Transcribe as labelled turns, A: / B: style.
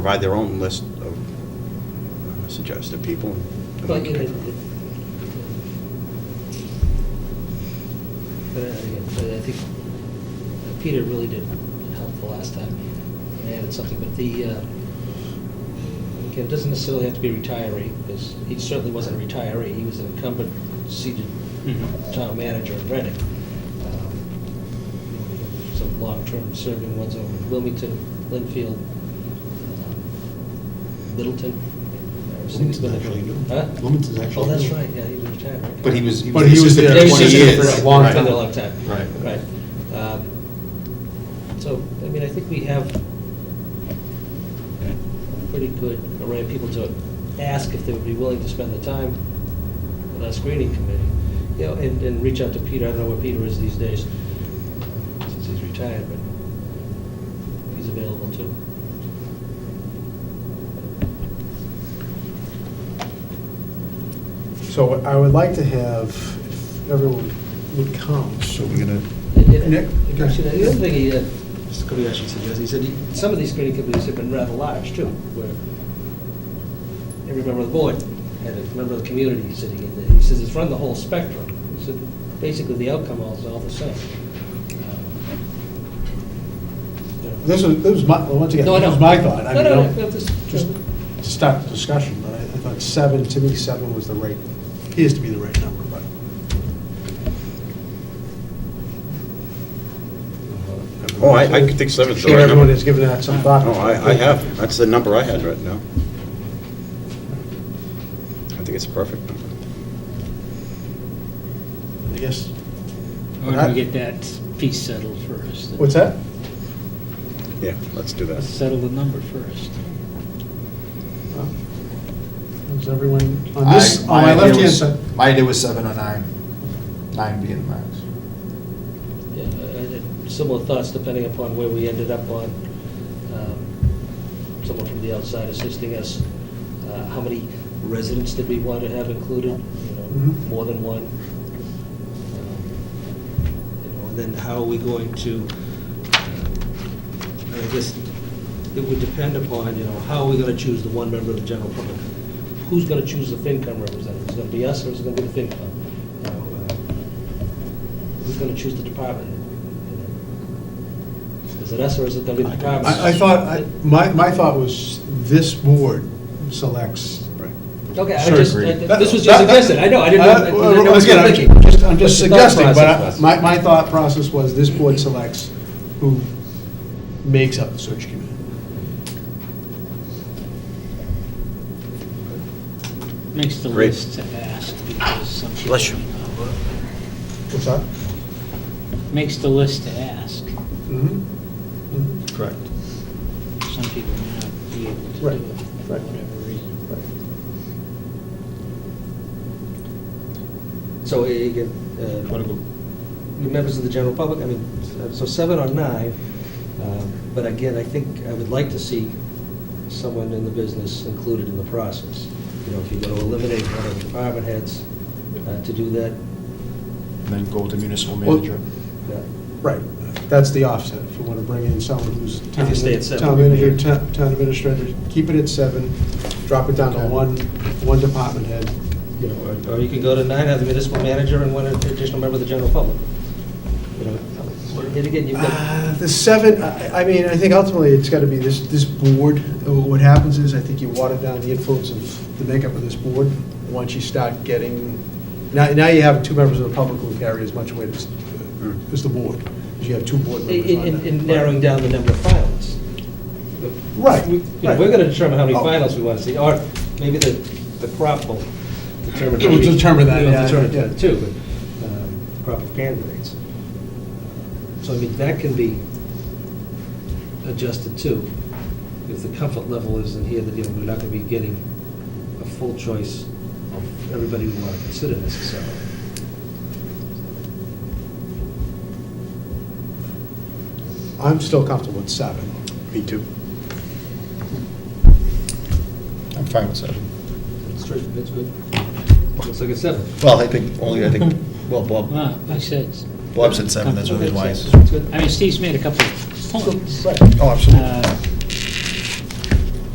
A: provide their own list of uh, suggested people. and
B: Well,
A: we
B: you
A: can
B: know,
A: pick
B: it-
A: from them.
B: But uh, yeah, but I think uh, Peter really did help the last time, and added something, but the, uh, again, it doesn't necessarily have to be a retiree, because he certainly wasn't a retiree, he was an incumbent seated
C: Mm-hmm.
D: Mhm.
B: town manager in Reading. Um, Some long-term serving ones over in Wilmington, Linfield, um, Littleton.
C: Wilmington's actually new.
B: Huh?
C: Wilmington's actually
B: Oh, that's
C: new.
B: right, yeah, he was retired, right?
C: But he was, he
D: But he was
C: was
D: there
C: there
B: They were
D: 20
C: twenty
B: just
D: years.
B: For a
C: years.
B: long,
D: Right.
B: for a long time.
C: Right.
B: Right. Um, So, I mean, I think we have a pretty good array of people to ask if they would be willing to spend the time on our screening committee. You know, and, and reach out to Peter, I don't know where Peter is these days, since he's retired, but he's available too.
E: So I would like to have, if everyone would come.
C: So we're gonna,
B: And- and-
E: Nick?
B: Actually, the other thing he, uh, just a couple of suggestions, he said, he- some of these screening committees have been rather large too, where every member of the board had a member of the community sitting in there. He says it's run the whole spectrum. He said, basically, the outcome all is all the same. Uh, Um,
E: This was, this was my, well, once again,
B: No, I
E: this was
B: know.
E: my thought. I
B: No,
E: mean,
B: no,
E: I'm-
B: no, just-
E: Just to start the discussion, but I I thought seven, to me, seven was the right, appears to be the right number, but.
A: Oh, I, I could think seven's the
E: Sure
A: right
E: everyone
A: number.
E: has given that some thought.
A: No, I, I have, that's the number I had right now. I think it's a perfect number.
E: I guess,
D: Or do we get that piece settled first?
E: what's that?
A: Yeah, let's do that.
D: Settle the number first.
E: Uh, Is everyone, on this, on
F: I-
E: my
F: idea
E: left hand
F: was-
E: side,
F: My idea was seven or nine, nine being the max.
B: yeah, I- I had uh, Similar thoughts depending upon where we ended up on, um, someone from the outside assisting us. Uh, How many residents did we want to have included? You know,
E: Mhm.
B: More than one? Um, You know, And then how are we going to, uh, I guess, it would depend upon, you know, how are we going to choose the one member of the general public? Who's going to choose the FinCom representative? Is it going to be us or is it going to be the FinCom? You know, uh, Who's going to choose the department? Is it us or is it going to be the department?
E: I, I thought, I- my, my thought was this board selects
A: Right.
B: Okay, I
F: Sure,
B: just,
F: agreed.
B: I- this was just
E: That- that-
B: suggested, I know, I didn't know, I
E: Uh,
B: didn't
E: well,
B: know what you
E: again,
B: were
E: I'm
B: thinking.
E: just- I'm just
B: But the thought
E: suggesting, but I-
B: process was-
E: my, my thought process was this board selects who makes up the search committee.
D: Makes the
A: Great.
D: list to ask because some people.
A: Bless you.
E: What's that?
D: Makes the list to ask.
E: Mhm. Mhm.
F: Correct.
D: Some people may not be able to do
E: Right,
D: it for
E: right.
D: whatever reason.
E: Mm-hmm.
B: So, uh, again, uh, the members of the general public, I mean, so seven or nine, um, but again, I think I would like to see someone in the business included in the process. You know, if you're going to eliminate one of the department heads uh, to do that,
F: And then go with the municipal
E: Well-
F: manager.
B: yeah.
E: Right, that's the offset, if you want to bring in someone who's town
B: you stay at seven.
E: town manager, ta- town administrator, keep it at seven, drop it down to
F: Okay.
E: one, one department head.
B: You know, or- or you can go to nine, have the municipal manager and one additional member of the general public. You know, Yet again, you've got,
E: Uh, The seven, I I mean, I think ultimately it's got to be this, this board. Uh, What happens is, I think you water down the influence of the makeup of this board once you start getting, now, now you have two members of the public who carry as much weight as, uh, as the board, 'cause you have two board
B: in-
E: members on
B: in
E: that.
B: in narrowing down the number of finalists.
E: Right,
B: We- you know,
E: right.
B: We're going to determine how many
E: Oh.
B: finalists we want to see, or maybe the, the crop will determine.
E: It will
B: who we-
E: determine that,
B: It'll
E: yeah,
B: determine
E: yeah.
B: that too, but, um, crop of candidates. So I mean, that can be adjusted too, if the comfort level isn't here, that, you know, we're not going to be getting a full choice of everybody we want to consider necessarily.
E: I'm still comfortable with seven.
A: Me too.
F: I'm fine with seven.
B: It's true, it's good. Looks like a seven.
F: Well, I think, only, I think, well, Bob,
D: Well, I said,
F: Bob said seven, that's what
B: Okay,
F: his wife.
B: so It's good.
D: I mean, Steve's made a couple of points.
F: Oh,
D: Uh,